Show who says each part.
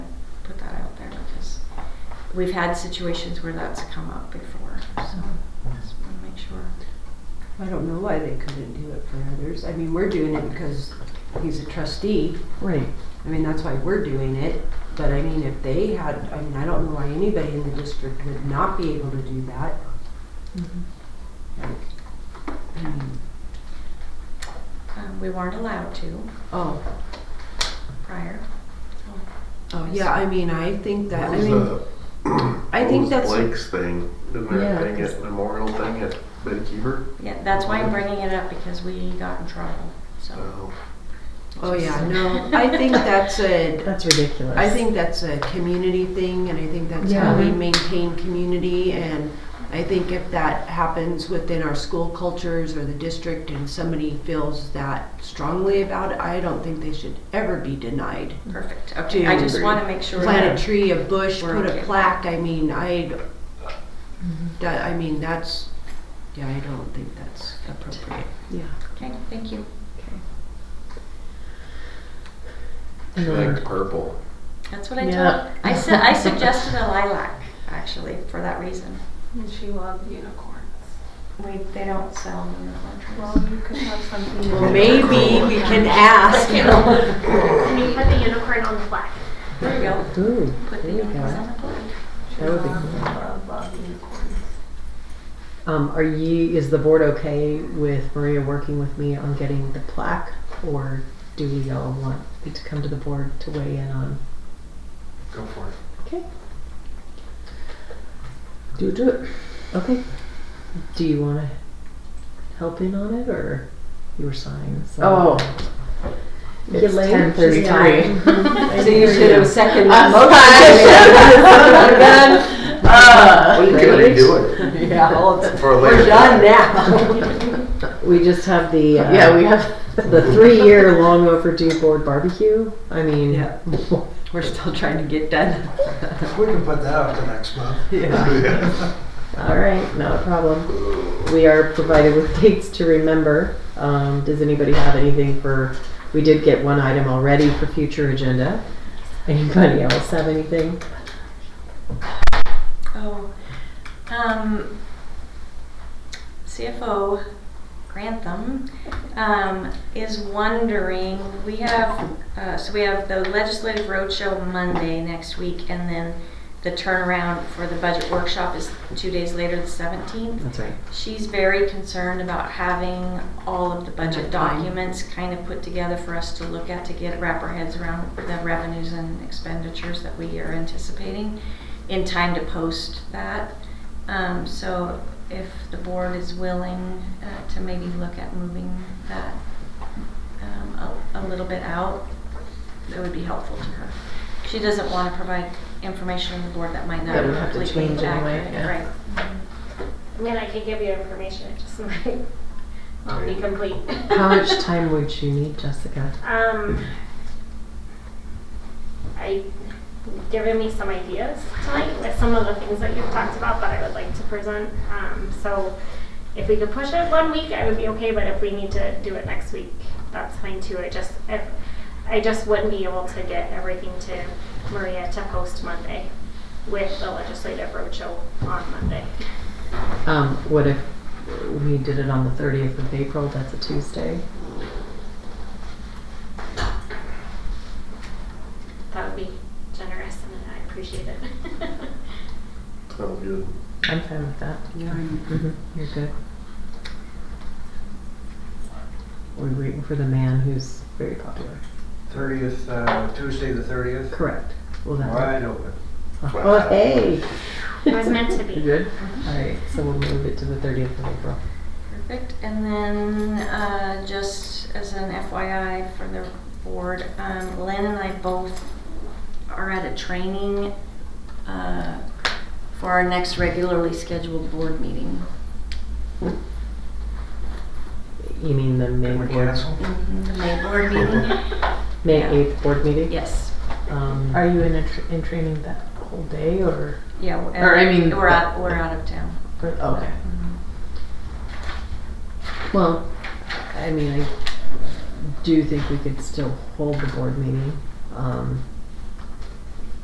Speaker 1: we've had situations where that's come up before, so
Speaker 2: Mm-hmm.
Speaker 1: just want to make sure.
Speaker 2: I don't know why they couldn't do it for others. I mean, we're doing it because he's a trustee.
Speaker 3: Right.
Speaker 2: I mean, that's why we're doing it. But I mean, if they had, I mean, I don't know why anybody in the district would not be able to do that. Like, I mean,
Speaker 1: Um, we weren't allowed to
Speaker 2: oh,
Speaker 1: prior. so-
Speaker 2: oh, yeah, I mean, I think that,
Speaker 4: What
Speaker 2: I
Speaker 4: was
Speaker 2: mean,
Speaker 4: the-
Speaker 2: I
Speaker 4: what
Speaker 2: think
Speaker 4: was
Speaker 2: that's-
Speaker 4: Blake's thing, didn't
Speaker 3: Yeah,
Speaker 4: there a thing
Speaker 3: that's-
Speaker 4: at Memorial thing at Betty Keeper?
Speaker 1: Yeah, that's why I'm bringing it up because we got in trouble, so.
Speaker 4: No.
Speaker 2: oh, yeah, no, I think that's a,
Speaker 3: That's ridiculous.
Speaker 2: I think that's a community thing, and I think that's how we
Speaker 3: Yeah.
Speaker 2: maintain community. And I think if that happens within our school cultures or the district, and somebody feels that strongly about it, I don't think they should ever be denied.
Speaker 1: Perfect, okay, I just
Speaker 2: Two.
Speaker 1: want to make sure.
Speaker 2: Plant a
Speaker 1: that-
Speaker 2: tree, a bush,
Speaker 1: We're
Speaker 2: put
Speaker 1: okay. Mm-hmm.
Speaker 2: a plaque. I mean, I, that, I mean, that's, yeah, I don't think that's appropriate.
Speaker 3: Yeah.
Speaker 1: Okay, thank you.
Speaker 4: She liked purple.
Speaker 1: That's what I
Speaker 3: Yeah.
Speaker 1: told, I said, I suggested a lilac, actually, for that reason.
Speaker 5: And she loved unicorns.
Speaker 1: We, they don't sell unicorn
Speaker 5: Well,
Speaker 1: trees.
Speaker 5: you could have something.
Speaker 2: Well, maybe we can ask.
Speaker 6: Can you put the unicorn on the plaque?
Speaker 1: There you go,
Speaker 3: Ooh,
Speaker 1: put the
Speaker 3: there you
Speaker 1: unicorns
Speaker 3: go.
Speaker 1: on the plate.
Speaker 5: She
Speaker 3: That would be
Speaker 5: loved,
Speaker 3: cool.
Speaker 5: loved, loved unicorns.
Speaker 3: Um, are you, is the board okay with Maria working with me on getting the plaque? Or do we all want it to come to the board to weigh in on?
Speaker 4: Go for it.
Speaker 3: Okay. Do it, do it. Okay. Do you wanna help in on it or you were sighing? so-
Speaker 7: Oh.
Speaker 3: You
Speaker 7: It's
Speaker 3: late?
Speaker 7: ten thirty-three.
Speaker 2: So you should have seconded the
Speaker 7: I'm
Speaker 2: Uh,
Speaker 4: Well, you can already do it.
Speaker 7: Yeah, well, it's-
Speaker 4: For later.
Speaker 7: we're done now.
Speaker 3: We just have the, uh,
Speaker 7: Yeah, we have.
Speaker 3: the three-year long overdue board barbecue. I mean,
Speaker 2: Yeah. We're still trying to get done.
Speaker 8: We can put that up to next month.
Speaker 4: Yeah.
Speaker 3: All right, not a problem. We are provided with dates to remember. Um, does anybody have anything for, we did get one item already for future agenda. Anybody else have anything?
Speaker 1: Oh, um, CFO Grantham, um, is wondering, we have, uh, so we have the legislative roadshow Monday next week, and then the turnaround for the budget workshop is two days later, the seventeenth.
Speaker 3: That's right.
Speaker 1: She's very concerned about having all of the budget
Speaker 2: Enough time.
Speaker 1: documents kind of put together for us to look at to get, wrap our heads around the revenues and expenditures that we are anticipating in time to post that. Um, so if the board is willing, uh, to maybe look at moving that, um, a, a little bit out, that would be helpful to her. She doesn't want to provide information on the board that might not
Speaker 7: That
Speaker 1: be
Speaker 7: would have to
Speaker 1: completely
Speaker 7: change anyway,
Speaker 1: accurate,
Speaker 7: yeah.
Speaker 1: right?
Speaker 6: I mean, I can give you information, it just might not be complete.
Speaker 3: How much time would you need, Jessica?
Speaker 6: Um, I, you've given me some ideas tonight with some of the things that you've talked about that I would like to present. Um, so if we could push it one week, I would be okay, but if we need to do it next week, that's fine too. I just, if, I just wouldn't be able to get everything to Maria to post Monday with the legislative roadshow on Monday.
Speaker 3: Um, what if we did it on the thirtieth of April? That's a Tuesday.
Speaker 6: That would be generous and I appreciate it.
Speaker 4: Sounds good.
Speaker 3: I'm fine with that.
Speaker 2: Yeah, I'm-
Speaker 3: Mm-hmm. You're good. We're waiting for the man who's very popular.
Speaker 8: Thirtieth, uh, Tuesday the thirtieth,
Speaker 3: Correct. Will that work?
Speaker 8: wide open.
Speaker 3: Oh, hey!
Speaker 6: It was meant to be.
Speaker 7: You good?
Speaker 3: Alright, so we'll move it to the thirtieth of April.
Speaker 1: Perfect, and then, uh, just as an FYI for the board, um, Lynn and I both are at a training, uh, for our next regularly scheduled board meeting.
Speaker 3: You mean the May
Speaker 8: Can we
Speaker 3: board,
Speaker 8: cancel?
Speaker 7: Mm-hmm.
Speaker 1: The May board meeting,
Speaker 3: May
Speaker 1: Yeah.
Speaker 3: eighth board meeting?
Speaker 1: yes,
Speaker 3: Um,
Speaker 7: Are you in, a tr- in training that whole day or?
Speaker 1: yeah. we're-
Speaker 7: Or, I mean-
Speaker 1: We're out, we're out of town.
Speaker 7: or- Okay.
Speaker 3: well, I mean, I do think we could still hold the board meeting. Um,